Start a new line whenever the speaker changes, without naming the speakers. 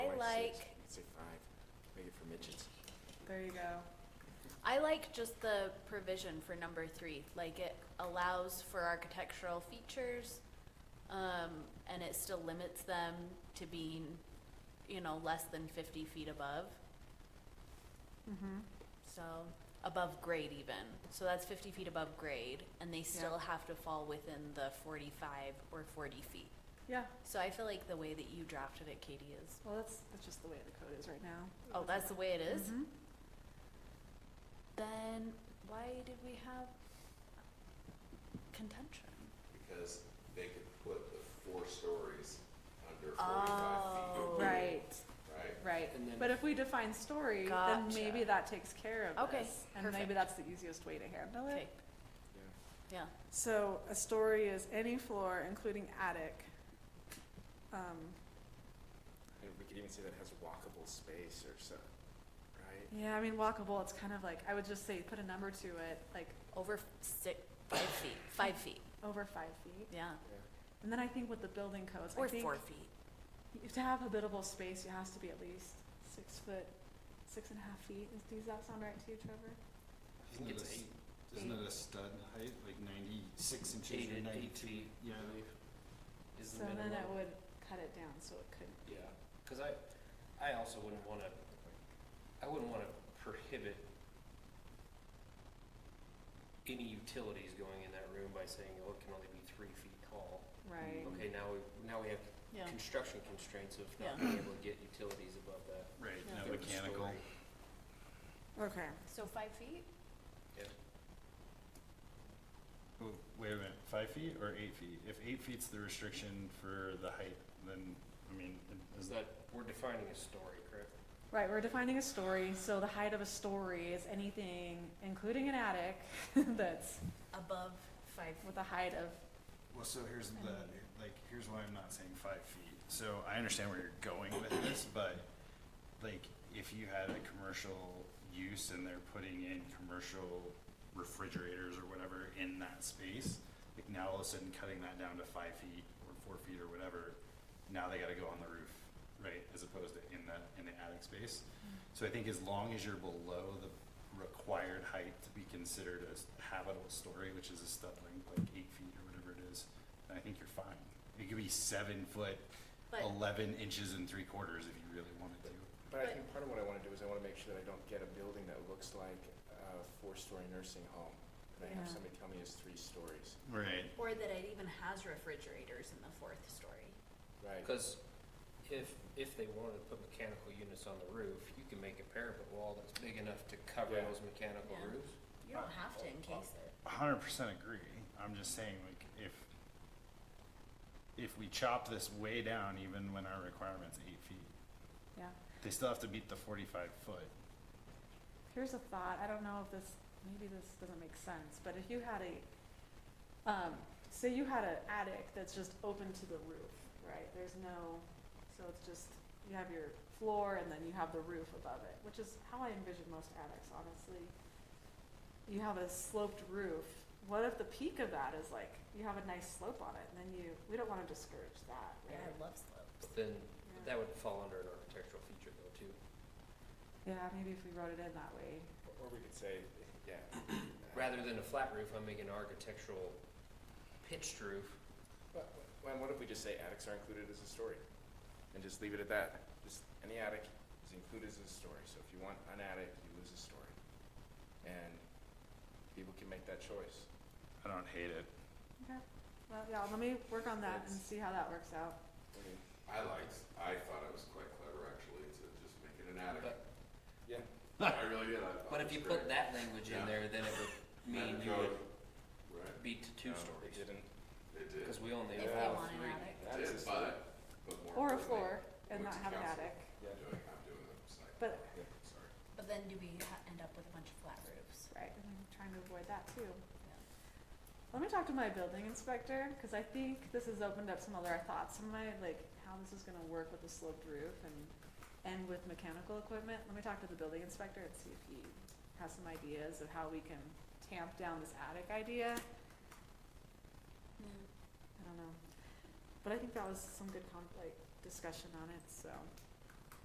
like,
Say five, maybe for midgets.
There you go.
I like just the provision for number three, like it allows for architectural features, um, and it still limits them to being, you know, less than fifty feet above,
Mm-hmm.
so, above grade even. So that's fifty feet above grade, and they still have to fall within the forty-five or forty feet.
Yeah,
So I feel like the way that you drafted it, Katie, is,
well, that's, that's just the way the code is right now.
oh, that's the way it is?
Mhm.
Then why did we have contention?
because they could put the four stories under
Oh.
forty-five feet,
Right,
right?
right.
And then-
But if we define story, then
Gotcha.
maybe that takes care of
Okay,
this. And
perfect.
maybe that's the easiest way to handle
Okay,
it.
yeah,
So a story is any floor, including attic. Um,
And we could even say that has walkable space or so, right?
yeah, I mean, walkable, it's kind of like, I would just say, put a number to it, like
over six, five feet, five feet,
over five feet.
yeah,
Yeah.
And then I think with the building codes, I
or
think
four feet.
you- to have habitable space, it has to be at least six foot, six and a half feet. Is- Does that sound right to you, Trevor?
Isn't it
It's
a, s-
eight-
isn't it a stud height, like ninety-six inches
eight
or
and eight
ninety-two?
feet,
Yeah,
I believe, Is
So
the
then
minimum.
it would cut it down, so it could.
Yeah, cause I, I also wouldn't wanna, I wouldn't wanna prohibit any utilities going in that room by saying, oh, it can only be three feet tall.
Right.
Mm-hmm.
Okay, now we, now we have
Yeah,
construction constraints of
Yeah.
not being able to get utilities above that.
right,
Yeah.
no
third
mechanical.
story.
Okay.
so five feet?
Oh, Wait a minute, five feet or eight feet? If eight feet's the restriction for the height, then, I mean, it-
Is
is
that, we're defining a story, correct?
Right, we're defining a story, so the height of a story is anything, including an attic, that's
Above five.
with a height of,
Well, so here's the, like, here's why I'm not saying five feet. So I understand where you're going with this, but like, if you had a commercial use and they're putting in commercial refrigerators or whatever in that space, like now all of a sudden cutting that down to five feet or four feet or whatever, now they gotta go on the roof, right, as opposed to in the, in the attic space. So I think as long as you're below the required height to be considered as habitable story, which is a stud length, like eight feet or whatever it is, then I think you're fine. It could be seven foot,
But,
eleven inches and three quarters if you really wanted to.
But I
But-
think part of what I wanna do is I wanna make sure that I don't get a building that looks like a four-story nursing home. And I have
Yeah.
somebody tell me it's three stories,
Right.
or that it even has refrigerators in the fourth story.
right?
Cause if, if they wanted to put mechanical units on the roof, you can make a parapet wall that's big enough to cover
Yeah.
those mechanical
Yeah.
roofs.
You don't have to encase it.
hundred percent agree. I'm just saying, like, if, if we chop this way down, even when our requirement's eight feet,
yeah.
they still have to meet the forty-five foot.
Here's a thought, I don't know if this, maybe this doesn't make sense, but if you had a, um, say you had an attic that's just open to the roof, right? There's no, so it's just, you have your floor and then you have the roof above it, which is how I envision most attics, honestly. You have a sloped roof, what if the peak of that is like, you have a nice slope on it, and then you, we don't wanna discourage that,
Yeah,
right?
I love slopes.
But then,
Yeah.
that would fall under an architectural feature though too.
Yeah, maybe if we wrote it in that way,
Or- Or we could say, yeah.
Rather than a flat roof, I'm making an architectural pitched roof.
But, well, what if we just say attics are included as a story? And just leave it at that, just, any attic is included as a story, so if you want an attic, you lose a story. And people can make that choice.
I don't hate it.
okay? Well, yeah, let me work on that and
It's-
see how that works out.
I mean,
I liked, I thought it was quite clever actually to just make it an attic.
But,
Yeah,
I really did, I thought
but
it
if
was
you
Oh, great.
put that language in
Yeah.
there, then it would mean
Then
you
go-
would
Right,
be to two
no, It
stories,
didn't,
it did,
cause we only
If they
Yeah,
allow
want an
three.
attic.
that
it
is a
did,
story.
but, but more
Or a
importantly,
floor and
went
not
to
have an
council.
attic.
Yeah.
I'm doing, I'm doing the site.
But-
Yeah.
Sorry.
But then do we ha- end up with a bunch of flat roofs?
Right, and I'm trying to avoid that too. Let me talk to my building inspector, because I think this has opened up some other thoughts in my, like, how this is gonna work with the sloped roof and, and with mechanical equipment. Let me talk to the building inspector and see if he has some ideas of how we can tamp down this attic idea.
Yeah. Hmm.
I don't know. But I think that was some good con, like, discussion on it, so.